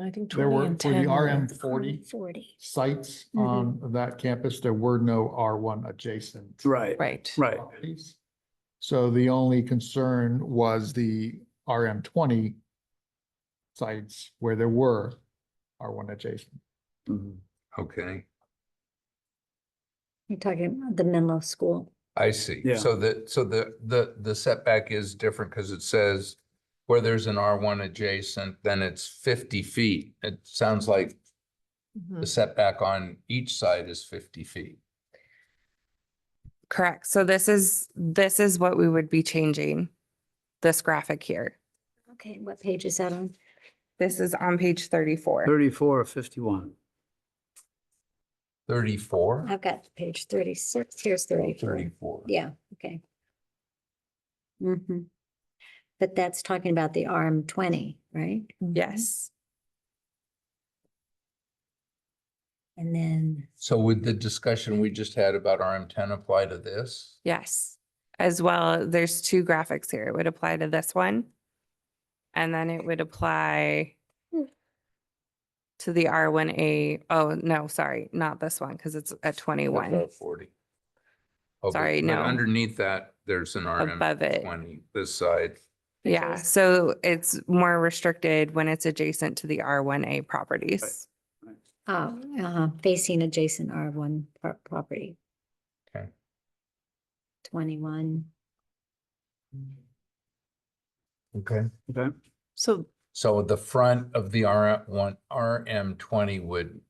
I think There twenty were, and for ten. the were- RM forty Forty. sites Mhm. on that campus, there were no R one adjacent. Right, Right. right. properties. So the only concern was the RM twenty sites where there were R one adjacent. Mhm. Okay, You're talking about the Menlo School. I see. Yeah. So the, so the, the, the setback is different because it says where there's an R one adjacent, then it's fifty feet. It sounds like Mhm. Mm-hmm. Mm-hmm. the setback on each side is fifty feet. Correct. So this is, this is what we would be changing. This graphic here. Okay, what page is that on? This is on page thirty-four. Thirty-four or fifty-one? Thirty-four? I've got page thirty-six, here's Oh, thirty-four. Thirty-four. Yeah, okay. hmm But that's talking about the RM twenty, right? Yes. And then, So would the discussion we just had about RM ten apply to this? Yes. As well, there's two graphics here. It would apply to this one. And then it would apply Hmm. to the R one A, oh, no, sorry, not this one, because it's at twenty-one. About Forty. Oh, but- Sorry, but no. Underneath that, there's an RM Above it. twenty, this side. Yeah, Because- so it's more restricted when it's adjacent to the R one A properties. oh, uh, facing adjacent R one property. Okay. Twenty-one. Okay. Okay, So So the front of the RM one, RM twenty would,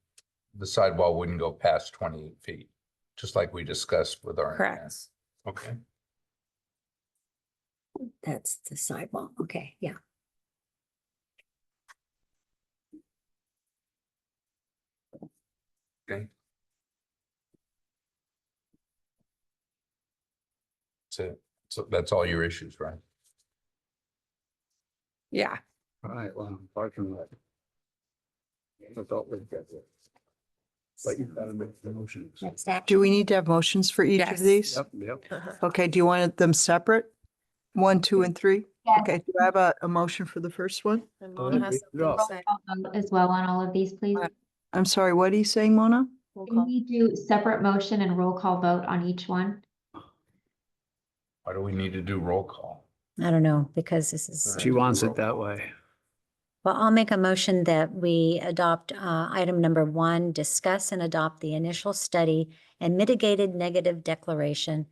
the sidewall wouldn't go past twenty feet, just like we discussed with our. Correct. Okay. That's the sidewall. Okay, yeah. So, so that's all your issues, right? Yeah. all right, well, parking lot. I thought we'd get there. But you gotta make the motions. That's that. Do we need to have motions for each Yes. of these? Yep, yep. Okay, do you want them separate? One, two, and three? Yes. Okay, do I have a, a motion for the first one? and Well, Mona has we- no. something to say. vote as well on all of these, please? Right. I'm sorry, what are you saying, Mona? Can we do separate motion and roll call vote on each one? Why do we need to do roll call? I don't know, because this is, She wants it that way. well, I'll make a motion that we adopt uh, item number one, discuss and adopt the initial study and mitigated negative declaration,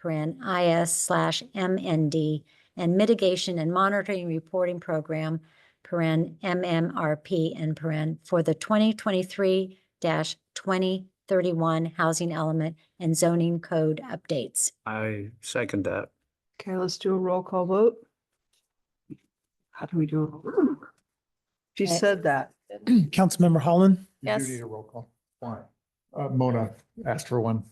paren IS slash MND, and mitigation and monitoring reporting program, paren MMRP, and paren for the 2023-2031 housing element and zoning code updates. I second that. Okay, let's do a roll call vote. How do we do? it? She Okay. said that. Councilmember Holland, You do Yes. need a roll call. Why? Uh, Mona asked for one.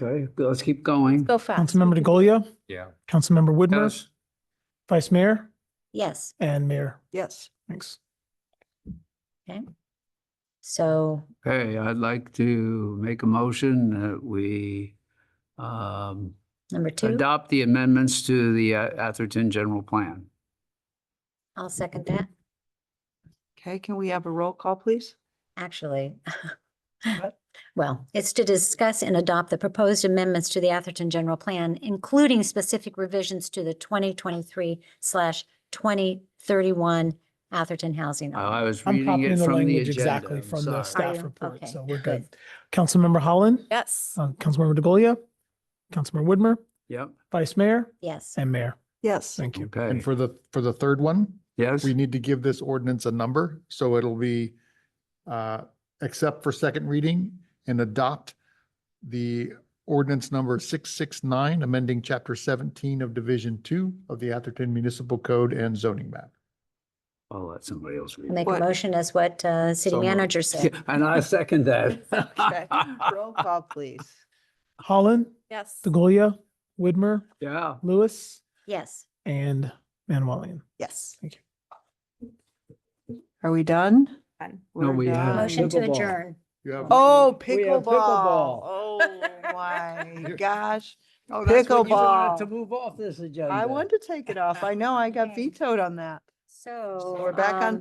Okay, let's keep going. Go fast. Councilmember DeGolia, Yeah. Councilmember Woodward, Yes, Vice Mayor, Yes. and Mayor. Yes. Thanks. So okay, I'd like to make a motion that we um, number two, adopt the amendments to the uh, Atherton General Plan. I'll second that. Okay, can we have a roll call, please? Actually, What? well, it's to discuss and adopt the proposed amendments to the Atherton General Plan, including specific revisions to the twenty twenty-three slash twenty thirty-one Atherton Housing. Oh, I Ordinance. was I'm reading copying it the from the language agenda. exactly I'm from Oh, sorry. the staff report, okay, so we're good. good. Councilmember Holland, Yes. uh, Councilmember DeGolia, Councilmember Woodmer, Yep, Vice Mayor, Yes, and Mayor. Yes. Thank you. And okay, for the, for the third one, yes, we need to give this ordinance a number, so it'll be, uh, except for second reading and adopt the ordinance number six six nine, amending chapter seventeen of division two of the Atherton Municipal Code and zoning map. I'll let somebody else read. I'll it. make a What? motion as what uh So city moved. manager said. Yeah, And I second that. Okay, roll call, please. Holland, Yes. DeGolia, Woodmer, Yeah, Lewis, Yes, and Manuelian. Yes. Thank you. Are we done? Done. No, We're we have- done. motion to pickleball. adjourn. You have- Oh, We have pickleball. pickleball. Oh, my gosh. Oh, that's when you wanted To to move off this agenda. I want to take it off. I know I got Okay. vetoed on that. So. we're back on um,